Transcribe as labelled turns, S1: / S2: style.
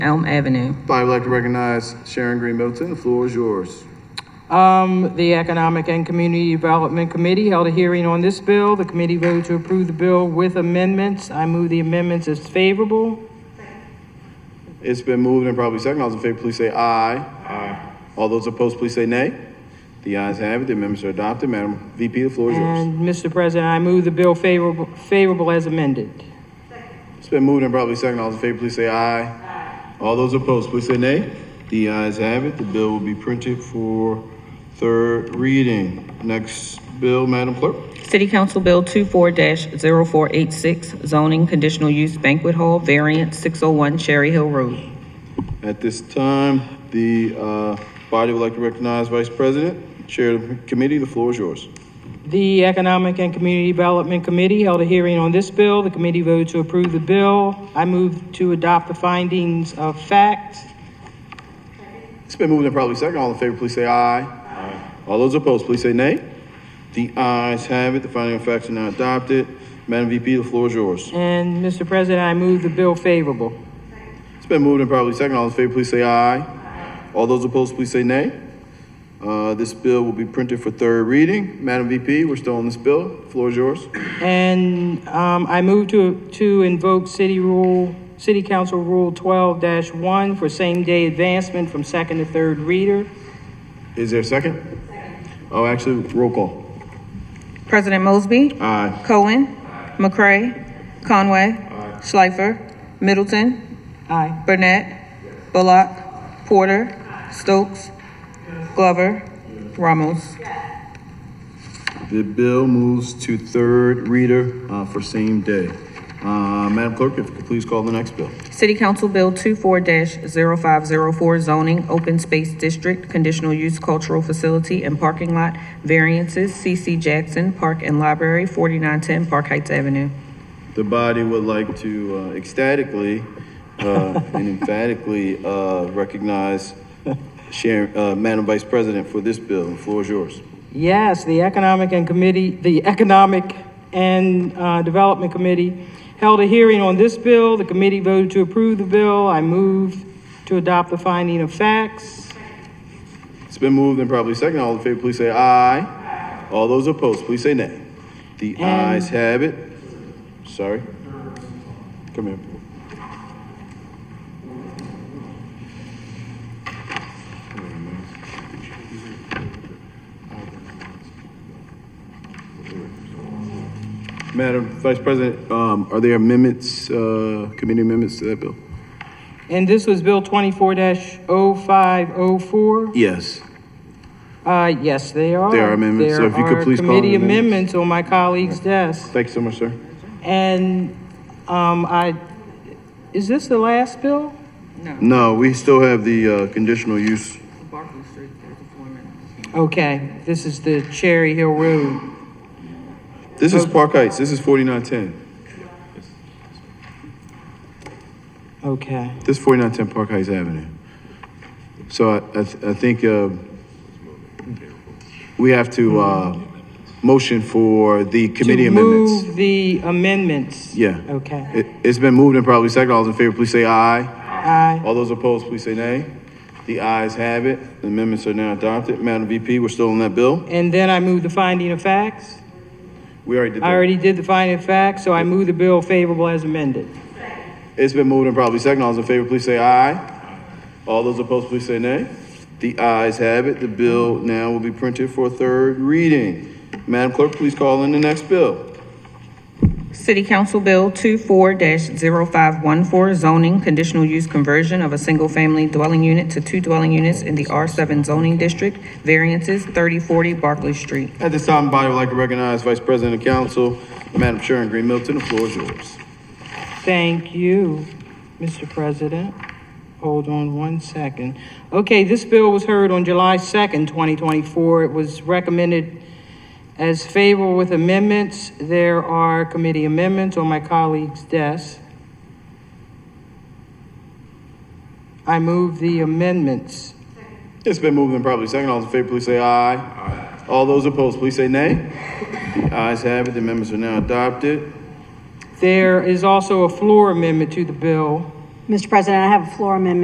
S1: Elm Avenue.
S2: I'd like to recognize Sharon Green Middleton. The floor is yours.
S3: Um, the Economic and Community Development Committee held a hearing on this bill. The committee voted to approve the bill with amendments. I move the amendments as favorable.
S2: It's been moved and probably second. All those in favor, please say aye. Aye. All those opposed, please say nay. The ayes have it. The amendments are adopted. Madam VP, the floor is yours.
S3: And, Mr. President, I move the bill favorable, favorable as amended.
S2: It's been moved and probably second. All those in favor, please say aye. Aye. All those opposed, please say nay. The ayes have it. The bill will be printed for third reading. Next bill, Madam Clerk.
S1: City Council Bill 24-0486 zoning conditional use banquet hall variance six oh one Cherry Hill Road.
S2: At this time, the uh, body would like to recognize Vice President, Chair of the Committee. The floor is yours.
S3: The Economic and Community Development Committee held a hearing on this bill. The committee voted to approve the bill. I move to adopt the findings of fact.
S2: It's been moved and probably second. All in favor, please say aye. Aye. All those opposed, please say nay. The ayes have it. The finding of facts are now adopted. Madam VP, the floor is yours.
S3: And, Mr. President, I move the bill favorable.
S2: It's been moved and probably second. All in favor, please say aye. Aye. All those opposed, please say nay. Uh, this bill will be printed for third reading. Madam VP, we're still on this bill. Floor is yours.
S3: And um, I move to, to invoke City Rule, City Council Rule twelve one for same-day advancement from second to third reader.
S2: Is there a second? Second. Oh, actually, roll call.
S4: President Mosby.
S2: Aye.
S4: Cohen. McCray. Conway. Schleifer. Middleton.
S3: Aye.
S4: Burnett. Bullock. Porter. Stokes. Glover. Ramos.
S2: The bill moves to third reader uh, for same day. Uh, Madam Clerk, if you could please call the next bill.
S1: City Council Bill 24-0504 zoning open space district conditional use cultural facility and parking lot variances CC Jackson Park and Library forty-nine ten Park Heights Avenue.
S2: The body would like to uh, ecstatically uh, and emphatically uh, recognize Sharon, uh, Madam Vice President for this bill. The floor is yours.
S3: Yes, the Economic and Committee, the Economic and uh, Development Committee held a hearing on this bill. The committee voted to approve the bill. I move to adopt the finding of facts.
S2: It's been moved and probably second. All in favor, please say aye. All those opposed, please say nay. The ayes have it. Sorry. Come here. boo. Madam Vice President, um, are there amendments, uh, committee amendments to that bill?
S3: And this was Bill twenty-four 504
S2: Yes.
S3: Uh, yes, they are.
S2: There are amendments, so
S3: There
S2: if you could
S3: are
S2: please call the
S3: Committee
S2: amendments.
S3: amendments on my colleague's desk.
S2: Thank you so much, sir.
S3: And, um, I, is this the last bill?
S2: No, we still have the, uh, conditional use.
S3: Okay, this is the Cherry Hill Road.
S2: This is Park Heights. This is forty-nine ten.
S3: Okay.
S2: This is forty-nine ten Park Heights Avenue. So I, I, th- I think, uh, we have to, uh, motion for the committee
S3: To
S2: amendments.
S3: move the amendments.
S2: Yeah.
S3: Okay.
S2: It, it's been moved and probably second. All those in favor, please say aye.
S3: Aye.
S2: All those opposed, please say nay. The ayes have it. The amendments are now adopted. Madam VP, we're still on that bill.
S3: And then I move the finding of facts.
S2: We already did
S3: I
S2: that.
S3: already did the finding of facts, so I move the bill favorable as amended.
S2: It's been moved and probably second. All those in favor, please say aye. All those opposed, please say nay. The ayes have it. The bill now will be printed for third reading. Madam Clerk, please call in the next bill.
S1: City Council Bill 24-0514 zoning conditional use conversion of a single-family dwelling unit to two dwelling units in the R seven zoning district, variances thirty forty Barclay Street.
S2: At this time, the body would like to recognize Vice President of Council, Madam Sharon Green Milton. The floor is yours.
S3: Thank you, Mr. President. Hold on one second. Okay, this bill was heard on July 2nd, 2024. It was recommended as favorable with amendments. There are committee amendments on my colleague's desk. I move the amendments.
S2: It's been moved and probably second. All those in favor, please say aye. Aye. All those opposed, please say nay. The ayes have it. The amendments are now adopted.
S3: There is also a floor amendment to the bill.
S5: Mr. President, I have a floor amendment